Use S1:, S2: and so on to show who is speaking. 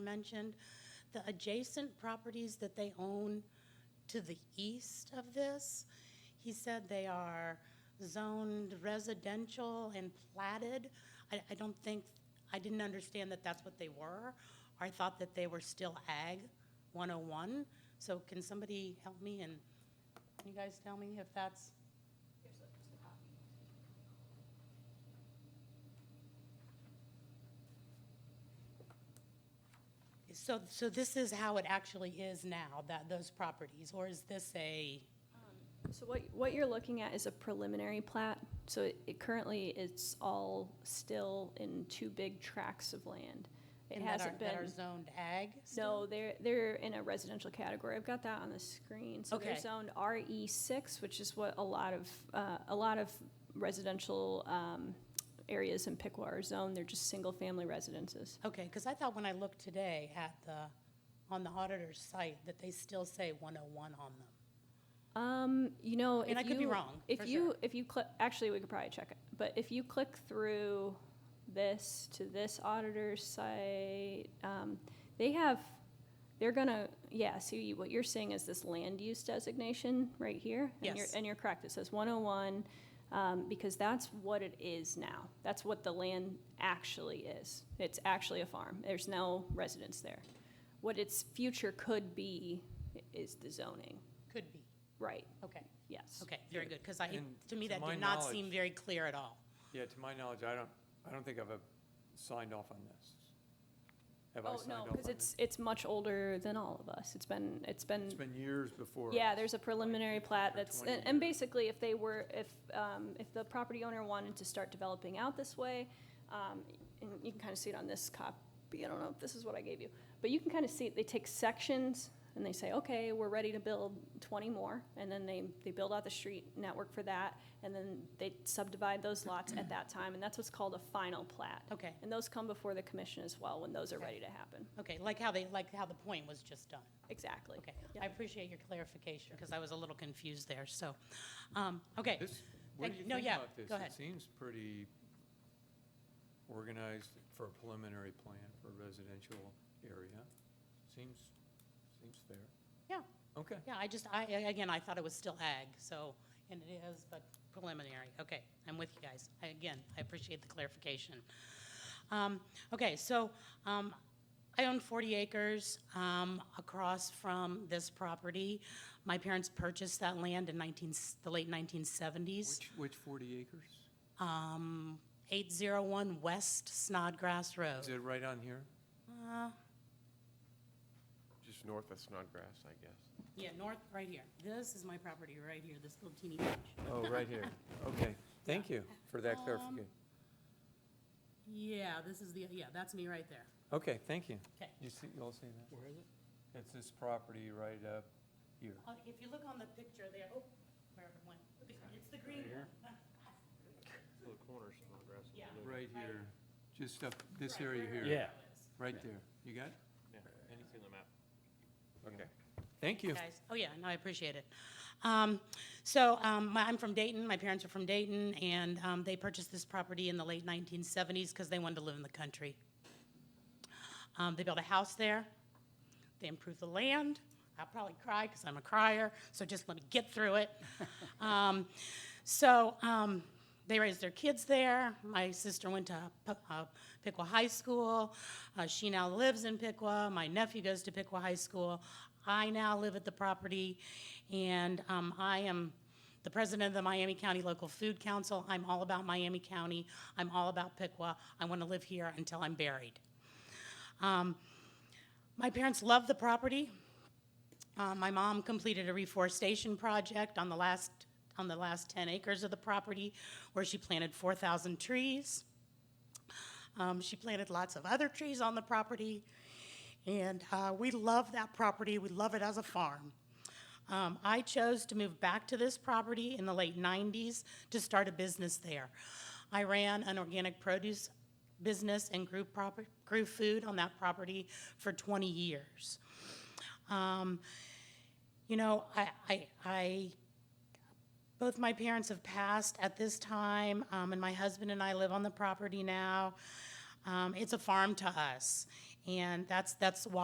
S1: mentioned, the adjacent properties that they own to the east of this, he said they are zoned residential and platted. I, I don't think, I didn't understand that that's what they were. I thought that they were still ag 101. So can somebody help me and can you guys tell me if that's? So, so this is how it actually is now, that, those properties, or is this a,
S2: So what, what you're looking at is a preliminary plat. So it- it currently, it's all still in two big tracts of land. It
S1: and that are,
S2: hasn't
S1: that are
S2: been,
S1: zoned ag? still?
S2: no, they're, they're in a residential category. I've got that on the screen. So they're
S1: Okay.
S2: zoned RE six, which is what a lot of, uh, a lot of residential, um, areas in Piqua are zoned. They're just single-family residences.
S1: Okay, because I thought when I looked today at the, on the auditor's site, that they still say 101 on them.
S2: Um, you know,
S1: And
S2: if
S1: I could be
S2: you-
S1: wrong, for
S2: If you
S1: sure.
S2: if you click, actually, we could probably check it. But if you click through this to this auditor's site, um, they have they're gonna yeah. So you, what you're seeing is this land use designation right here. And
S1: Yes.
S2: you're, and you're correct. It says 101 um, because that's what it is now. That's what the land actually is. It's actually a farm. There's no residence there. What its future could be is the zoning.
S1: Could be,
S2: Right.
S1: okay,
S2: Yes.
S1: okay, very
S3: Yeah,
S1: good, because I, it-
S3: and
S1: to me,
S3: to
S1: that
S3: my
S1: did not seem
S3: knowledge-
S1: very clear at all.
S3: Yeah, to my knowledge, I don't, I don't think I've uh, signed off on this. Have I
S2: Oh,
S3: signed
S2: no,
S3: off on
S2: because
S3: this?
S2: it's, it's much older than all of us. It's been, it's
S3: It's
S2: been,
S3: been years before.
S2: yeah,
S3: us,
S2: there's a
S3: like
S2: preliminary
S3: 15
S2: plat
S3: or
S2: that's,
S3: 20
S2: and, and
S3: years.
S2: basically if they were, if, um, if the property owner wanted to start developing out this way, um, and you can kind of see it on this copy, I don't know if this is what I gave you, but you can kind of see, it. they take sections and they say, okay, we're ready to build twenty more, and then they, they build out the street network for that, and then they subdivide those lots at that time, and that's what's called a final plat.
S1: Okay,
S2: And those come before the commission as well, when those are
S1: Okay.
S2: ready to happen.
S1: okay, like how they, like how the point was just done.
S2: Exactly.
S1: Okay,
S2: Yeah.
S1: I appreciate your clarification, because I was a little confused there, so, um, okay.
S3: This, what
S1: Thank-
S3: do you
S1: no,
S3: think
S1: yeah,
S3: about this?
S1: go ahead.
S3: It seems pretty organized for a preliminary plan for a residential area. Seems, seems fair.
S1: Yeah.
S3: Okay.
S1: Yeah, I just, I, I- again, I thought it was still ag, so, and it is, but preliminary. Okay, I'm with you guys. I- Again, I appreciate the clarification. Um, Okay, so um, I own 40 acres um, across from this property. My parents purchased that land in 19, the late 1970s.
S3: Which, which 40 acres?
S1: Um, 801 West Snodgrass
S2: Uh,
S1: Road.
S3: Is it right on here?
S4: Just north of Snodgrass, I guess.
S1: Yeah, north, right here. This is my property right here, this little teeny patch.
S3: Oh, right here. Okay, thank you for
S2: Um,
S3: that clarification.
S1: Yeah, this is the, yeah, that's me right there.
S3: Okay, thank you.
S1: Okay.
S3: You see, you all see that? Where is it? It's this property right up here.
S1: Uh, If you look on the picture there, oh, wherever it went, it's the green
S3: here?
S1: one.
S4: Little corner of Snodgrass.
S1: Yeah.
S3: Right here, just up this area
S1: where
S3: here.
S1: her
S3: Right there. You got it?
S4: Anything on the map. Okay.
S3: Thank you.
S1: Guys, oh yeah, no, I appreciate it. Um, so, um, my- I'm from Dayton, my parents are from Dayton, and, um, they purchased this property in the late nineteen seventies because they wanted to live in the country. Um, they built a house there, they improved the land, I'll probably cry because I'm a crier, so just let me get through it. Um, so, um, they raised their kids there. My sister went to P- uh, Piqua High School. Uh, she now lives in Piqua. My nephew goes to Piqua High School. I now live at the property, and um, I am the president of the Miami County Local Food Council. I'm all about Miami County. I'm all about Piqua. I want to live here until I'm buried. Um, my parents love the property. Uh, my mom completed a reforestation project on the last, on the last 10 acres of the property where she planted 4,000 trees. Um, she planted lots of other trees on the property. And uh, we love that property. We love it as a farm. Um, I chose to move back to this property in the late 90s to start a business there. I ran an organic produce business and grew, proper, grew food on that property for 20 years. Um, you know, I, I, I, both my parents have passed at this time, um, and my husband and I live on the property now. Um, it's a farm to us, And that's, that's why